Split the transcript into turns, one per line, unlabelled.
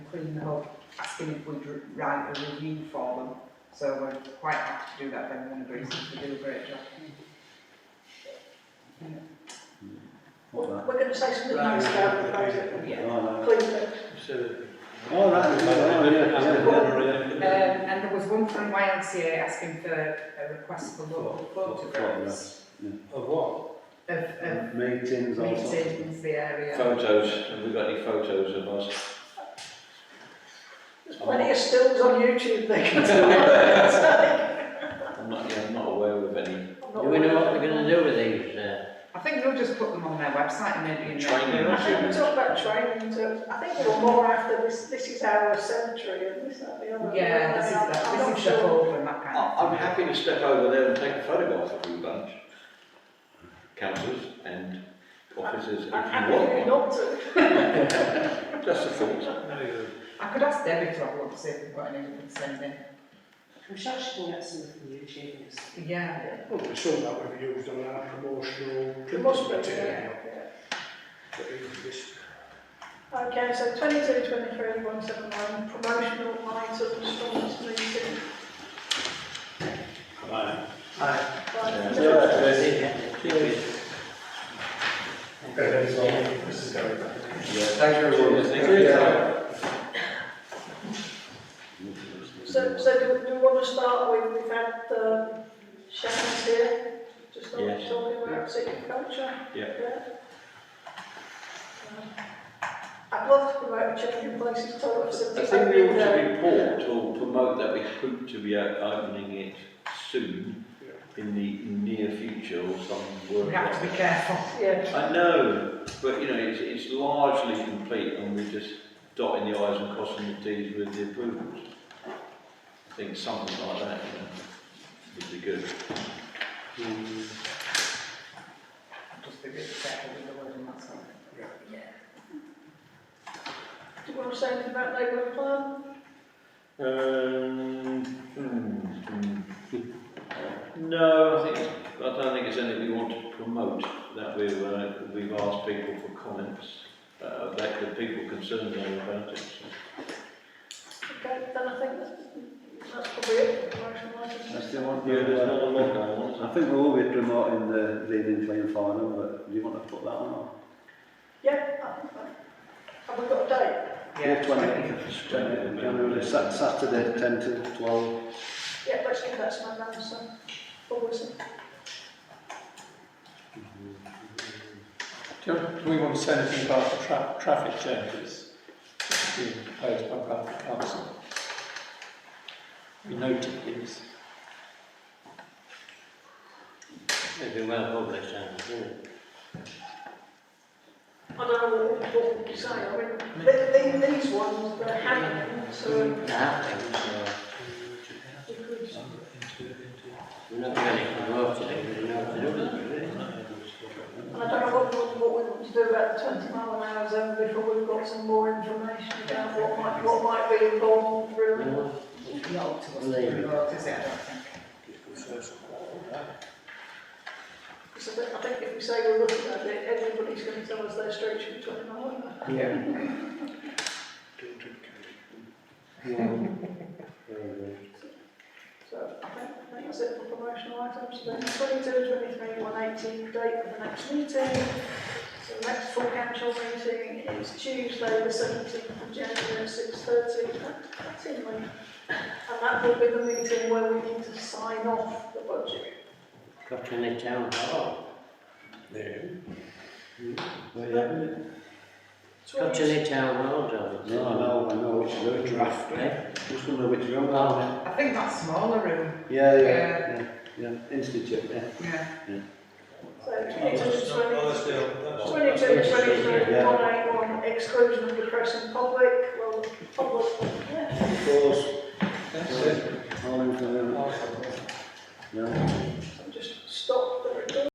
clean them up, asking if we'd r- write a review for them. So we're quite happy to do that, then one agrees if they do a great job.
What that?
We're gonna say something nice about the project.
Yeah.
Oh,
Please,
that, oh, yeah, yeah,
Um,
yeah, yeah.
and there was one from YMCA asking for a request for local photographs
Of what?
of, of
Meetings, all sorts of stuff.
meetings, the area.
Photos, have we got any photos of us?
there's plenty of stills on YouTube they can take.
I'm not, yeah, I'm not aware of any.
Do we know what we're gonna do with these, uh,
I think they'll just put them on their website and maybe in their.
Training.
I think we talked about training, and so I think we're more after this, this is our cemetery and this, that, the other.
Yeah, this is
I'm- I'm
that,
not
this is the
sure.
whole and that kind
Oh,
of.
I'm happy to step over there and take a photograph of you bunch. Councillors and officers, if you
I'm happy
want one.
not to.
Just a thought.
I could ask Debbie to have a look, see if we've got any we can send in.
I'm sure she can get some from YouTube and stuff.
Yeah.
Well, there's some that we've used on our promotional.
It must be,
material.
yeah.
But it's just-
Okay, so twenty-two, twenty-three, one seven one, promotional items from this meeting.
Right.
Right.
Yeah, thanks everyone. Thank
So, so do, do we want to start with, we've had, um, Shannon's here, just not
Yes.
talking about secret culture.
Yeah.
Um, I'd love to promote changing places, toilet
I
facilities.
think we ought
uh,
to report or promote that we hope to be out opening it soon, in the near future or some word.
We have to
like
be careful.
Yeah,
I know, but you know, it's, it's largely complete and we're just dotting the i's and crossing the t's with the approvals. I think something like that, you know, would be good.
Just be really careful with the wording, that's all.
do you want to say anything about neighbourhood plan?
Um, hmm, hmm. No, I think, I don't think it's anything we want to promote, that we've, uh, we've asked people for comments, uh, that the people concerned know about it, so.
Okay, then I think that's, that's probably it, promotional items.
That's the one.
Yeah, there's not a lot going on, is there?
I think we will be promoting the leading playing final, but do you want to put that on or?
Yeah, I think that. Have we got a date?
Yeah.
Twenty, January, Sa- Saturday, ten to twelve.
Yeah, let's give that to my mum, so, always.
Do, do we want to say anything about the tra- traffic changes being proposed by Bradford Council? We noted these.
it'd be well publicised, wouldn't it?
I don't know what, what you say, I mean, th th these ones, they're hanging, so uh,
Nah, I think so.
we could,
We're not really promoting it, we don't know what to do with it, really.
and I don't know what, we- what we want to do about the twenty mile an hour zone before we've got some more information about what might, what might be involved, really.
No.
Not up to us to promote, is it, I don't think.
So I think if we say we're looking at it, everybody's gonna tell us their street should be twenty mile an hour.
Yeah.
So I think, I think that's it for promotional items, then twenty-two, twenty-three, one eighty, date of the next meeting. So the next full council meeting is Tuesday, the seventeenth of January, six thirty, that's in May. And that will be the meeting where we need to sign off the budget.
Got any town hall,
It's
got
really-
any town hall, darling?
No, I know, I know which road.
Draft.
Eh?
Just wonder which road.
Oh,
I think that smaller room,
Yeah, yeah, yeah, yeah, institute, yeah.
yeah.
So twenty-two, twenty,
Well,
twenty-two, twenty-three,
Yeah.
one eighty-one, exclusion of the press and public, well, public, yeah.
Of course.
That's it.
All in favour?
Awesome.
No.